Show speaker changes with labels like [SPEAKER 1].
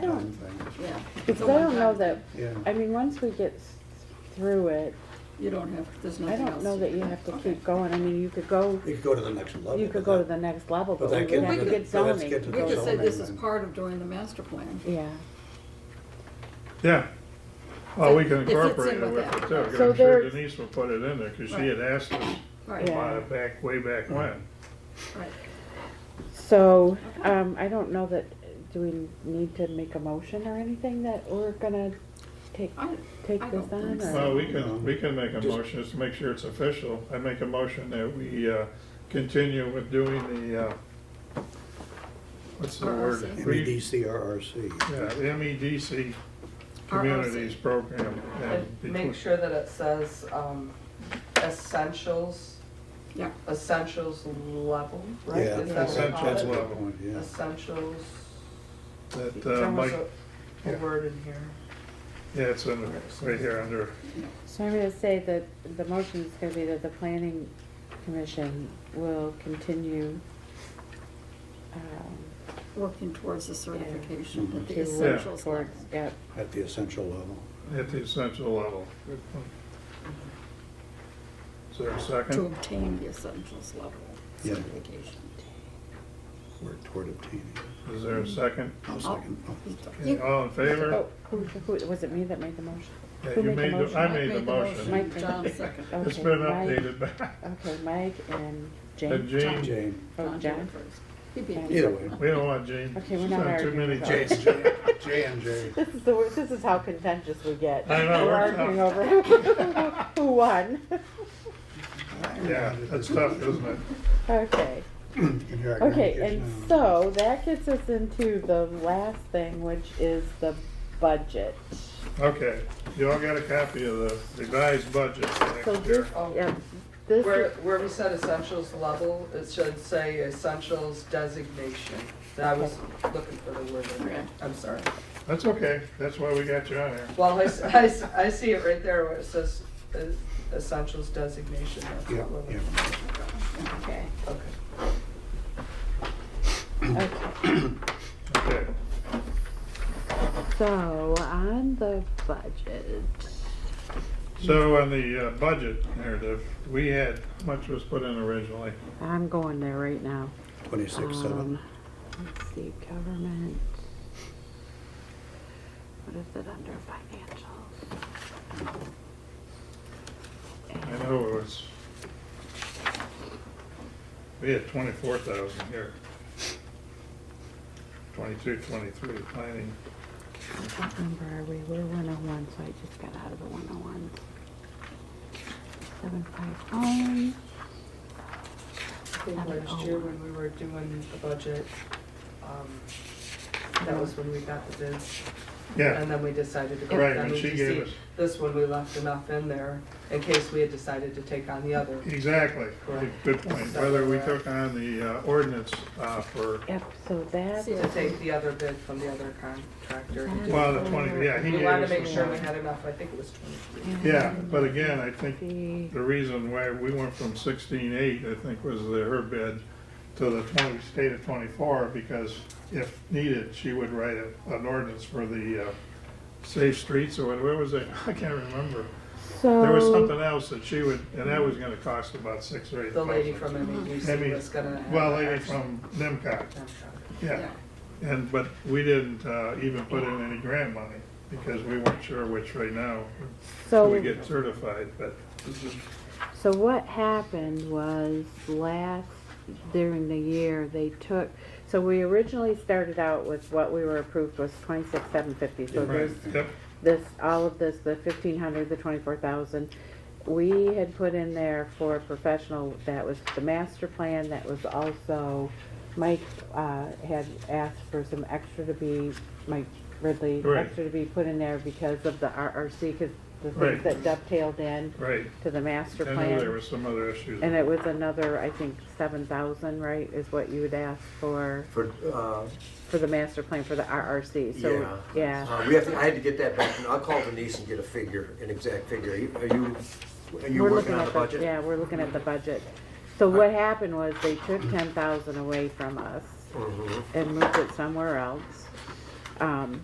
[SPEAKER 1] fun thing.
[SPEAKER 2] yeah.
[SPEAKER 3] Because I don't know that,
[SPEAKER 1] Yeah.
[SPEAKER 3] I mean, once we get s- through it,
[SPEAKER 2] You don't have, there's
[SPEAKER 3] I
[SPEAKER 2] nothing else.
[SPEAKER 3] don't know that you have to
[SPEAKER 2] Okay.
[SPEAKER 3] keep going. I mean, you could go,
[SPEAKER 1] You could go to the next level.
[SPEAKER 3] you
[SPEAKER 1] with
[SPEAKER 3] could go to
[SPEAKER 1] that.
[SPEAKER 3] the next level,
[SPEAKER 1] But
[SPEAKER 3] but
[SPEAKER 1] that
[SPEAKER 3] we
[SPEAKER 1] can-
[SPEAKER 3] would have to
[SPEAKER 2] but
[SPEAKER 3] get
[SPEAKER 1] that's get to
[SPEAKER 3] zoning.
[SPEAKER 2] We could say
[SPEAKER 1] zoning
[SPEAKER 2] this is
[SPEAKER 1] then.
[SPEAKER 2] part of doing the master plan.
[SPEAKER 3] Yeah.
[SPEAKER 4] Yeah. Well, we
[SPEAKER 2] It
[SPEAKER 4] can
[SPEAKER 2] fits in
[SPEAKER 4] incorporate it
[SPEAKER 2] with
[SPEAKER 4] with
[SPEAKER 2] that.
[SPEAKER 4] it too, 'cause
[SPEAKER 3] So
[SPEAKER 4] I'm sure
[SPEAKER 3] there's-
[SPEAKER 4] Denise will put it in there, cause she
[SPEAKER 2] Right.
[SPEAKER 4] had asked us
[SPEAKER 2] Right,
[SPEAKER 3] Yeah.
[SPEAKER 4] about it back, way back when.
[SPEAKER 2] right.
[SPEAKER 3] So, um, I don't know that, do we need to make a motion or anything that we're gonna take,
[SPEAKER 2] I,
[SPEAKER 3] take
[SPEAKER 2] I
[SPEAKER 3] this
[SPEAKER 2] don't think
[SPEAKER 3] on?
[SPEAKER 2] so.
[SPEAKER 3] or-
[SPEAKER 4] Well, we can, we can make a
[SPEAKER 1] Just-
[SPEAKER 4] motion, just to make sure it's official, I make a motion that we, uh, continue with doing the, uh, what's the word?
[SPEAKER 2] RRC.
[SPEAKER 1] E
[SPEAKER 4] Re-
[SPEAKER 1] MEDCRRC.
[SPEAKER 4] Yeah, the MEDC Communities
[SPEAKER 2] RRC.
[SPEAKER 4] Program. and
[SPEAKER 5] And make sure that it says um, essentials,
[SPEAKER 2] Yeah,
[SPEAKER 5] essentials level, right?
[SPEAKER 1] Yeah,
[SPEAKER 5] Is that what we call
[SPEAKER 1] that's a
[SPEAKER 5] it?
[SPEAKER 1] good point, yeah.
[SPEAKER 5] Essentials,
[SPEAKER 4] That, uh,
[SPEAKER 5] there was
[SPEAKER 4] Mike,
[SPEAKER 5] a a
[SPEAKER 4] yeah.
[SPEAKER 5] word in here.
[SPEAKER 4] yeah, it's in, right here under,
[SPEAKER 3] So I'm gonna say that the motion is gonna be that the planning commission will continue, um,
[SPEAKER 2] working towards the certification at the
[SPEAKER 3] to work
[SPEAKER 2] essentials level.
[SPEAKER 3] towards, yeah,
[SPEAKER 1] At the essential level.
[SPEAKER 4] at the essential level. Good point. Is there a second?
[SPEAKER 2] To obtain the essentials level
[SPEAKER 1] Yeah.
[SPEAKER 2] certification.
[SPEAKER 1] Work toward obtaining.
[SPEAKER 4] Is there a second?
[SPEAKER 2] Oh,
[SPEAKER 1] I'll second.
[SPEAKER 2] You-
[SPEAKER 4] Okay, All in favor?
[SPEAKER 3] Oh, who, who, was it me that made the motion?
[SPEAKER 4] Yeah,
[SPEAKER 3] who
[SPEAKER 4] you
[SPEAKER 3] made the
[SPEAKER 4] made the-
[SPEAKER 3] motion?
[SPEAKER 4] I
[SPEAKER 2] Mike
[SPEAKER 4] made the motion.
[SPEAKER 3] Mike made
[SPEAKER 2] John
[SPEAKER 3] the
[SPEAKER 2] seconded.
[SPEAKER 4] It's
[SPEAKER 3] Okay,
[SPEAKER 4] been
[SPEAKER 3] Mike-
[SPEAKER 4] updated back.
[SPEAKER 3] Okay, Mike and
[SPEAKER 4] And
[SPEAKER 3] Jane.
[SPEAKER 2] John.
[SPEAKER 4] Jane,
[SPEAKER 1] Jane,
[SPEAKER 3] Oh,
[SPEAKER 2] did it
[SPEAKER 3] John.
[SPEAKER 2] first. He beat me.
[SPEAKER 1] either way.
[SPEAKER 4] we don't want Jane.
[SPEAKER 3] Okay, we're
[SPEAKER 4] She's
[SPEAKER 3] not
[SPEAKER 4] on Too
[SPEAKER 3] arguing
[SPEAKER 4] many
[SPEAKER 3] about
[SPEAKER 1] Jane,
[SPEAKER 3] it.
[SPEAKER 4] Janes.
[SPEAKER 1] J and J.
[SPEAKER 3] This is the worst, this is how contentious we get.
[SPEAKER 4] I
[SPEAKER 3] We're
[SPEAKER 4] know, we're
[SPEAKER 3] arguing over who- who won.
[SPEAKER 4] Yeah, that's tough, isn't it?
[SPEAKER 3] Okay, okay, and so that gets us into the last thing, which is the budget.
[SPEAKER 4] Okay, you all got a copy of the revised budget for
[SPEAKER 3] So
[SPEAKER 4] next
[SPEAKER 3] this,
[SPEAKER 4] year.
[SPEAKER 5] Oh.
[SPEAKER 3] yeah, this,
[SPEAKER 5] Where,
[SPEAKER 3] is-
[SPEAKER 5] where we said essentials level, it should say essentials designation. I was looking for the word in there, I'm sorry.
[SPEAKER 4] That's okay, that's why we got you on here.
[SPEAKER 5] Well, I, s- I s- I see it right there where it says uh, essentials designation, that's
[SPEAKER 1] Yeah,
[SPEAKER 5] what we're.
[SPEAKER 1] yeah.
[SPEAKER 2] Okay.
[SPEAKER 5] Okay.
[SPEAKER 3] okay,
[SPEAKER 4] Okay,
[SPEAKER 3] so on the budget,
[SPEAKER 4] so on the uh, budget narrative, we had, how much was put in originally?
[SPEAKER 3] I'm going there right now.
[SPEAKER 1] Twenty-six,
[SPEAKER 3] Um,
[SPEAKER 1] seven.
[SPEAKER 3] Let's see, government. What is it under financials?
[SPEAKER 4] I know it was, we had twenty-four thousand here. Twenty-two, twenty-three, planning,
[SPEAKER 3] What number are we? We're one oh one, so I just got out of the one oh one. Seven five oh.
[SPEAKER 5] I think last year when we were doing the budget, um, that was when we got the bids.
[SPEAKER 4] yeah,
[SPEAKER 5] And then we decided to go
[SPEAKER 4] Right,
[SPEAKER 5] with
[SPEAKER 4] and she gave
[SPEAKER 5] MEGC.
[SPEAKER 4] us-
[SPEAKER 5] This one, we left enough in there in case we had decided to take on the other.
[SPEAKER 4] exactly,
[SPEAKER 5] Correct.
[SPEAKER 4] good point. Whether we took on the uh, ordinance uh, for,
[SPEAKER 3] Yep, so that's,
[SPEAKER 2] See
[SPEAKER 5] To
[SPEAKER 2] it.
[SPEAKER 5] take the other bid from the other contractor. to do-
[SPEAKER 4] well, the twenty, yeah, he
[SPEAKER 5] We
[SPEAKER 4] gave
[SPEAKER 5] wanted
[SPEAKER 4] us
[SPEAKER 5] to make
[SPEAKER 4] the
[SPEAKER 5] sure we
[SPEAKER 4] one.
[SPEAKER 5] had enough, I think it was twenty-three.
[SPEAKER 4] Yeah, but again, I think
[SPEAKER 3] the,
[SPEAKER 4] The reason why we went from sixteen eight, I think, was the, her bid to the twenty, state of twenty-four, because if needed, she would write a, an ordinance for the, uh, safe streets or what, what was it? I can't remember.
[SPEAKER 3] so.
[SPEAKER 4] There was something else that she would, and that was gonna cost about six or eight
[SPEAKER 5] The
[SPEAKER 4] thousand.
[SPEAKER 5] lady from MEGC
[SPEAKER 4] Maybe-
[SPEAKER 5] was gonna. have
[SPEAKER 4] Well,
[SPEAKER 5] an
[SPEAKER 4] lady
[SPEAKER 5] action
[SPEAKER 4] from NIMCOG,
[SPEAKER 5] contract.
[SPEAKER 4] yeah. And, but we didn't, uh, even put in any grant money, because we weren't sure which right now,
[SPEAKER 3] So-
[SPEAKER 4] we get certified, but,
[SPEAKER 3] So what happened was last, during the year, they took, so we originally started out with what we were approved was twenty-six, seven fifty. So
[SPEAKER 4] right,
[SPEAKER 3] this,
[SPEAKER 4] yep,
[SPEAKER 3] this, all of this, the fifteen hundred, the twenty-four thousand, we had put in there for a professional, that was the master plan, that was also, Mike, uh, had asked for some extra to be, Mike Ridley,
[SPEAKER 4] Right.
[SPEAKER 3] extra to be put in there because of the RRC, because the
[SPEAKER 4] Right.
[SPEAKER 3] things that dovetailed in
[SPEAKER 4] right.
[SPEAKER 3] to the master
[SPEAKER 4] I
[SPEAKER 3] plan.
[SPEAKER 4] know there were some other issues.
[SPEAKER 3] And it was another, I think, seven thousand, right, is what you would ask for,
[SPEAKER 6] for, uh,
[SPEAKER 3] for the master plan for the RRC,
[SPEAKER 6] yeah.
[SPEAKER 3] so, yeah.
[SPEAKER 6] Uh, We have to, I had to get that back, and I'll call Denise and get a figure, an exact figure. Are you- Are you, are you
[SPEAKER 3] We're
[SPEAKER 6] working
[SPEAKER 3] looking
[SPEAKER 6] on
[SPEAKER 3] at
[SPEAKER 6] the budget? Uh,
[SPEAKER 3] Yeah, we're looking at the budget. So what happened was they took ten thousand away from us
[SPEAKER 6] Mhm.
[SPEAKER 3] and moved it somewhere else. Um,